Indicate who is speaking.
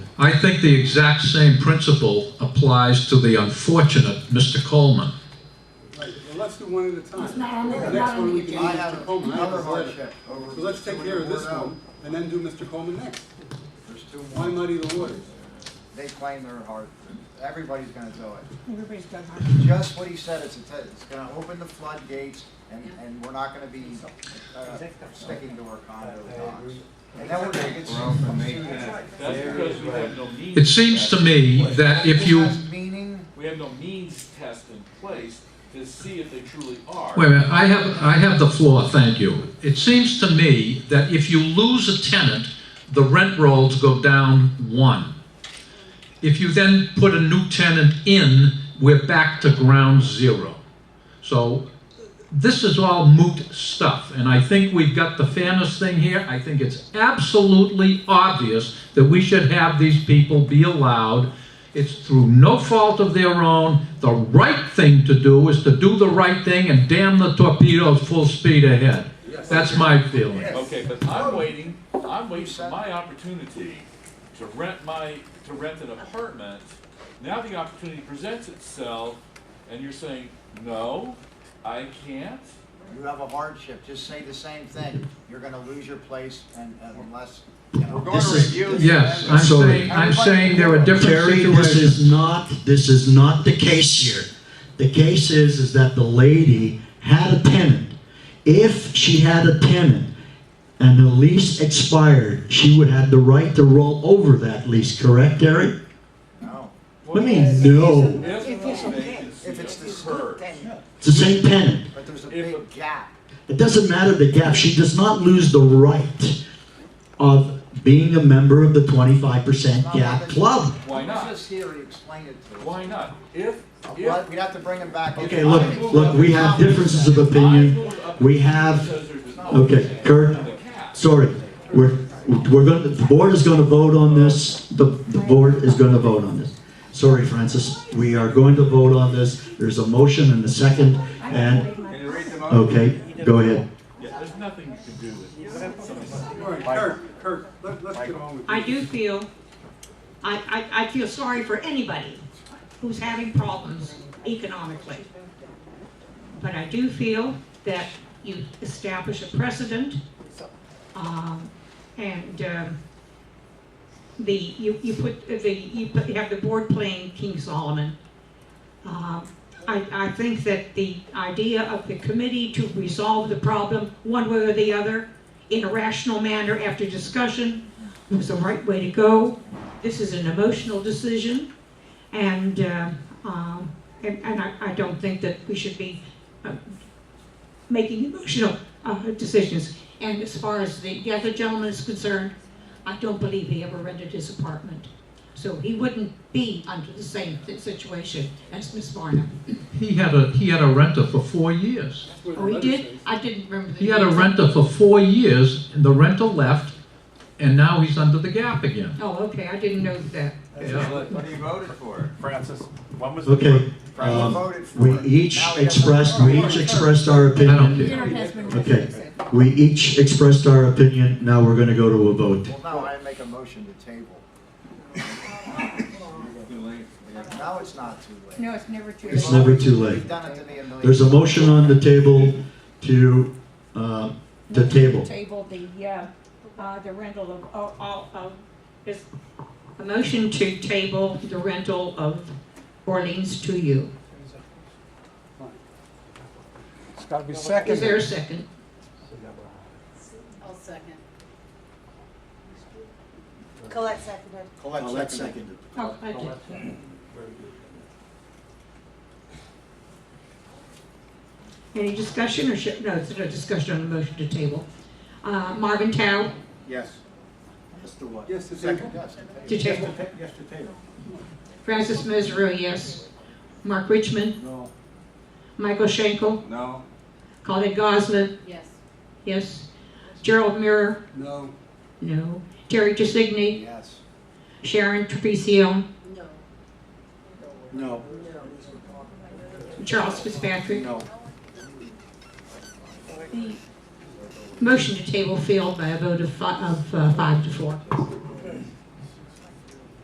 Speaker 1: I think the exact same principle applies to the unfortunate Mr. Coleman.
Speaker 2: Right, well, let's do one at a time.
Speaker 3: It's not on the-
Speaker 2: The
Speaker 3: not
Speaker 2: next
Speaker 3: on
Speaker 2: one
Speaker 3: the
Speaker 2: we can do
Speaker 3: agenda.
Speaker 4: I have
Speaker 2: Mr. Coleman. I have
Speaker 4: another
Speaker 2: this letter.
Speaker 4: hardship over
Speaker 2: So let's take care of this
Speaker 4: somebody who wore
Speaker 2: one, and then do Mr. Coleman next.
Speaker 4: There's two
Speaker 2: Why
Speaker 4: more.
Speaker 2: muddy the waters?
Speaker 4: They claim they're hard, everybody's gonna do it.
Speaker 3: Everybody's got hard.
Speaker 4: Just what he said, it's, a- it's gonna open the floodgates and, and we're not gonna be, uh, sticking to our condo docs. And then we're gonna get sued from students.
Speaker 5: That's because we have no means.
Speaker 1: It seems to
Speaker 5: test.
Speaker 1: me that if you,
Speaker 4: This has Meaning,
Speaker 5: We have no means test in place to see if they truly are.
Speaker 1: wait a minute, I have, I have the floor, thank you. It seems to me that if you lose a tenant, the rent rolls go down one. If you then put a new tenant in, we're back to ground zero. So this is all moot stuff, and I think we've got the fairness thing here. I think it's absolutely obvious that we should have these people be allowed. It's through no fault of their own. The right thing to do is to do the right thing and damn the torpedoes full speed ahead. That's my feeling.
Speaker 5: Okay, but I'm waiting, I'm waiting for my opportunity to rent my, to rent an apartment. Now the opportunity presents itself, and you're saying, no, I can't?
Speaker 4: you have a hardship, just say the same thing. You're gonna lose your place and and unless, you know. We're
Speaker 1: This is- Yes, I'm saying, I'm saying there are different
Speaker 6: Terry, this
Speaker 1: situations.
Speaker 6: is not, this is not the case here. The case is, is that the lady had a tenant. If she had a tenant and the lease expired, she would have the right to roll over that lease, correct, Terry?
Speaker 4: No.
Speaker 6: What do you mean, no?
Speaker 5: If
Speaker 3: If it's
Speaker 5: the
Speaker 3: okay.
Speaker 5: vacancy
Speaker 4: If it's the-
Speaker 5: occurs.
Speaker 6: It's the same tenant.
Speaker 4: But there's a
Speaker 5: If-
Speaker 4: big gap.
Speaker 6: It doesn't matter the gap, she does not lose the right of being a member of the twenty-five percent gap club.
Speaker 5: Why
Speaker 4: Let's
Speaker 5: not?
Speaker 4: just hear you explain it to us.
Speaker 5: Why not? If,
Speaker 4: Well,
Speaker 5: if.
Speaker 4: We'd have to bring him back. in.
Speaker 6: Okay, look, look, we have differences of
Speaker 5: I
Speaker 6: opinion.
Speaker 5: moved up
Speaker 6: We have,
Speaker 5: because there's no
Speaker 6: okay, Kurt,
Speaker 5: the cap.
Speaker 6: sorry, we're, we're gonna, the board is gonna vote on this, the, the board is gonna vote on this. Sorry, Francis, we are going to vote on this, there's a motion and a second, and,
Speaker 3: Can
Speaker 6: okay, go ahead.
Speaker 5: Yeah, there's nothing you can do with it.
Speaker 2: All right, Kirk, Kirk, let- let's get on with
Speaker 7: I
Speaker 2: it.
Speaker 7: do feel, I, I, I feel sorry for anybody who's having problems economically. But I do feel that you establish a precedent, um, and, um, the, you, you put, the, you put- you have the board playing King Solomon. Um, I, I think that the idea of the committee to resolve the problem, one way or the other, in a rational manner after discussion, it was the right way to go. This is an emotional decision, and, uh, um, and and I I don't think that we should be uh, making emotional uh, decisions. And as far as the the other gentleman is concerned, I don't believe he ever rented his apartment. So he wouldn't be under the same si- situation as Miss Varna.
Speaker 1: He had a, he had a renter for four years.
Speaker 2: That's where the
Speaker 7: Oh, he
Speaker 2: letter
Speaker 7: did?
Speaker 2: says.
Speaker 7: I didn't remember the.
Speaker 1: He had a
Speaker 7: name.
Speaker 1: renter for four years, and the renter left, and now he's under the gap again.
Speaker 7: Oh, okay, I didn't know that.
Speaker 1: Yeah.
Speaker 4: What he voted for.
Speaker 8: Francis, when was the?
Speaker 6: Okay,
Speaker 4: He
Speaker 6: um,
Speaker 4: voted for
Speaker 6: we
Speaker 4: it.
Speaker 6: each
Speaker 4: Now he has a-
Speaker 6: expressed, we each expressed our
Speaker 1: I don't care.
Speaker 6: opinion.
Speaker 3: Dinner has been
Speaker 6: Okay.
Speaker 3: said.
Speaker 6: We each expressed our opinion, now we're gonna go to a vote.
Speaker 4: Well, no, I make a motion to table. Now it's not too late.
Speaker 3: No, it's never too.
Speaker 6: It's
Speaker 3: late.
Speaker 6: never too late.
Speaker 4: You've done it to me a million.
Speaker 6: There's a motion on the table to, uh, the table.
Speaker 3: Table the, uh, uh, the rental of,
Speaker 7: I'll- I'll- I'll- is A motion to table the rental of Orleans to you.
Speaker 9: It's gotta be
Speaker 7: Is there
Speaker 9: seconded.
Speaker 7: a second?
Speaker 3: I'll second. Colette seconded.
Speaker 4: Colette seconded.
Speaker 7: Oh, I did. Any discussion or should, no, it's not a discussion on the motion to table. Uh, Marvin Tao
Speaker 4: Yes. Yes to what?
Speaker 2: Yes, it's second.
Speaker 4: Second, yes.
Speaker 7: to table.
Speaker 4: Yes to table.
Speaker 7: Francis Mesorowski, yes. Mark Richmond,
Speaker 4: No.
Speaker 7: Michael Schenkel,
Speaker 4: No.
Speaker 7: Colin Goslin,
Speaker 3: Yes.
Speaker 7: yes. Gerald Mirror,
Speaker 2: No,
Speaker 7: no. Terry Jusigny,
Speaker 4: Yes.
Speaker 7: Sharon Trapicio,
Speaker 3: No.
Speaker 4: No.
Speaker 7: Charles Fitzpatrick.
Speaker 4: No.
Speaker 7: The motion to table failed by a vote of fi- of, uh, five to four.